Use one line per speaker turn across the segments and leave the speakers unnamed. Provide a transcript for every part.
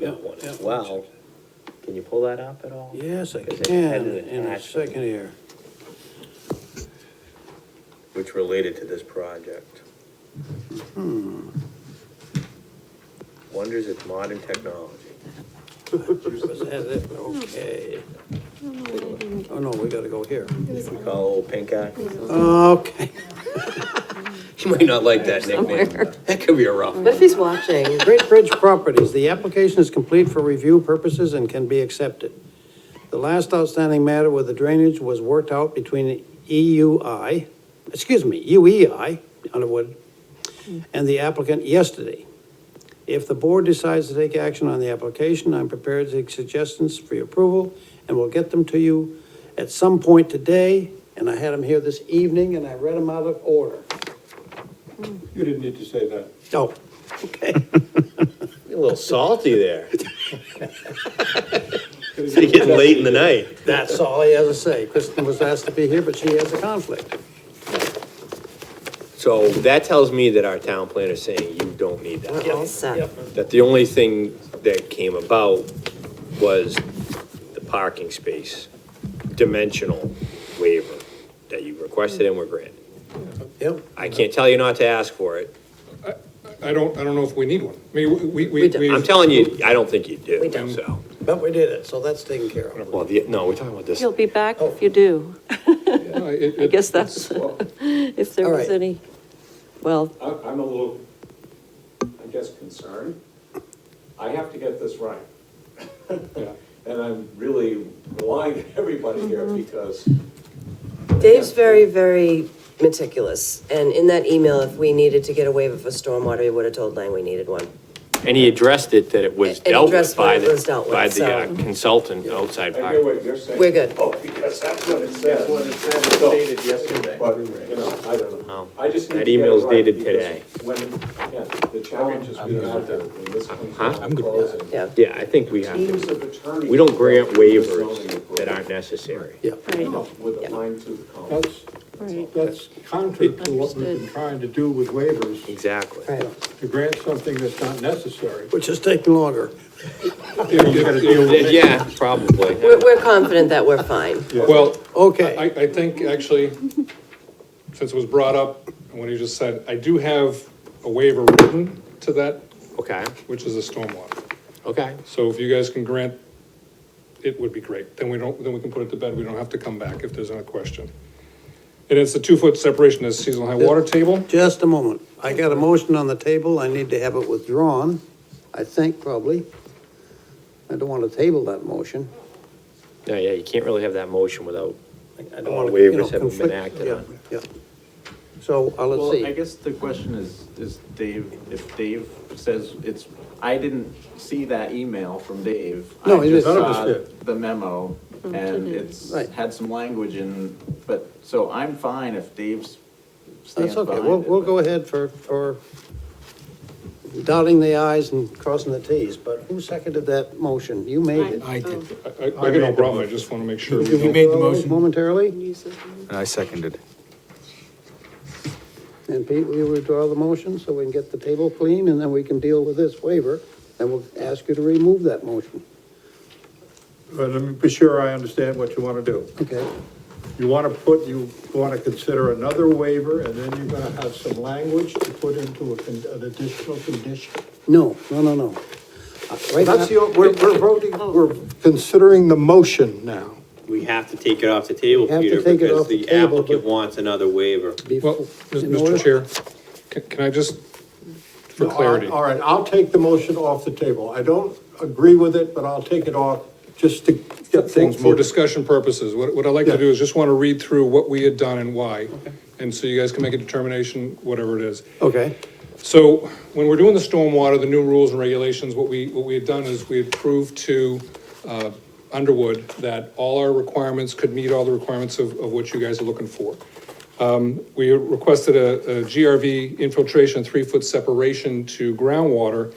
Yeah, yeah.
Well, can you pull that up at all?
Yes, I
Because it
can,
had it
in a
attached.
second here.
which related to this project. Wonders at modern technology.
Was that it? Okay. Oh, no, we gotta go here.
We call old pink eye.
Okay.
He might not like that nickname. That could be a rough
What
one.
if he's watching?
Great Bridge Properties, the application is complete for review purposes and can be accepted. The last outstanding matter with the drainage was worked out between EUI, excuse me, E UEI, Underwood, and the applicant yesterday. If the board decides to take action on the application, I'm prepared to take suggestions for your approval, and we'll get them to you at some point today, and I had them here this evening, and I read them out of order.
You didn't need to say that.
Oh, okay.
A little salty there. Getting late in the night.
That's all he has to say. Kristen was asked to be here, but she has a conflict.
So that tells me that our town planner's saying you don't need that.
We're all set.
That the only thing that came about was the parking space dimensional waiver that you requested and were granted.
Yep.
I can't tell you not to ask for it.
I don't, I don't know if we need one. I mean, we, we,
We don't.
we.
I'm telling you, I don't think you do.
We don't.
So,
But we did it, so that's taken care of.
well, the, no, we're talking about this.
You'll be back if you do.
No, it-
I
it-
guess that's, if there
All
was
right.
any, well,
I- I'm a little, I guess, concerned. I have to get this right.
yeah.
And I'm really relying on everybody here because
Dave's very, very meticulous, and in that email, if we needed to get a waiver for stormwater, he would have told Lang we needed one.
And he addressed it, that it was
And he
dealt with
addressed
by
what it was
the,
dealt with,
by the uh,
so-
consultant outside
I hear
party.
what you're saying.
We're good.
Oh, because that's what it says.
That's what it said, it
So-
dated yesterday.
But, you know, I don't know.
Oh.
I just need
That
to get it
email's
right
dated
because
today.
When, yeah, the challenges we have to, when this comes
Huh?
to closing.
Yeah.
Yeah, I think we have,
Teams
to-
of attorneys.
we don't grant
go through the zoning
waivers that aren't
approval.
necessary.
Yeah.
right,
No, With a fine tooth comb.
That's,
right.
that's contrary to what we've been
Understood.
trying to do with waivers,
Exactly.
Right.
to grant something that's not necessary.
Which is taking longer.
You gotta deal with it.
Yeah, probably.
We're, we're confident that we're fine.
Well, I,
Okay,
I think actually, since it was brought up, and what he just said, I do have a waiver written to that,
Okay,
which is a stormwater.
okay.
So if you guys can grant, it would be great. Then we don't, then we can put it to bed. We don't have to come back if there's any question. And it's a two-foot separation at seasonal high water table.
just a moment. I got a motion on the table, I need to have it withdrawn, I think probably. I don't want to table that motion.
No, yeah, you can't really have that motion without,
I
All
wanna,
waivers
Oh, you know,
haven't been
conflict-
acted
yeah,
on.
Yeah. So, uh, let's
Well, I
see.
guess the question is, is Dave, if Dave says it's, I didn't see that email from Dave. I
No, it
just
is- None
of us
saw
did.
The memo, and it's
Right.
had some language in, but, so I'm fine if Dave's stands
That's
behind
okay, we'll,
it,
we'll
but-
go ahead for, for dotting the i's and crossing the t's, but who seconded that motion? You made it.
I did.
I, I I got no problem. I just want to make sure. we don't-
made the motion. Momentarily,
I seconded.
and Pete, will you withdraw the motion so we can get the table clean and then we can deal with this waiver? And we'll ask you to remove that motion,
But let me be sure I understand what you wanna do.
okay?
You wanna put, you wanna consider another waiver, and then you're gonna have some language to put into a, con- an additional condition.
No, no, no, no. Uh, Right now,
That's the, we're, we're voting, we're considering the motion now.
We have to take it off the table,
Have to
Peter,
take it
because
off the
the
table,
applicant
but-
wants another waiver.
be-
Well,
in order-
Mr. Chair, can, can I just, for
No, all right,
clarity?
All right, I'll take the motion off the table. I don't agree with it, but I'll take it off just to get
For,
things
for
moving.
discussion purposes, what, what I'd like
Yeah.
to do is just want to read through what we had done and why. And so you guys can make a determination, whatever it is.
Okay,
So when we're doing the stormwater, the new rules and regulations, what we, what we had done is we had proved to uh, Underwood that all our requirements could meet all the requirements of, of what you guys are looking for. Um, We requested a a GRV infiltration, three-foot separation to groundwater.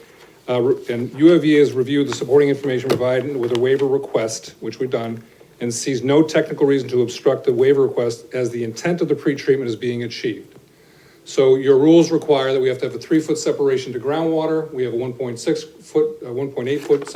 uh, re- And UAV has reviewed the supporting information provided with a waiver request, which we've done, and sees no technical reason to obstruct the waiver request as the intent of the pretreatment is being achieved. So your rules require that we have to have a three-foot separation to groundwater. We have a 1.6 foot, 1.8 foot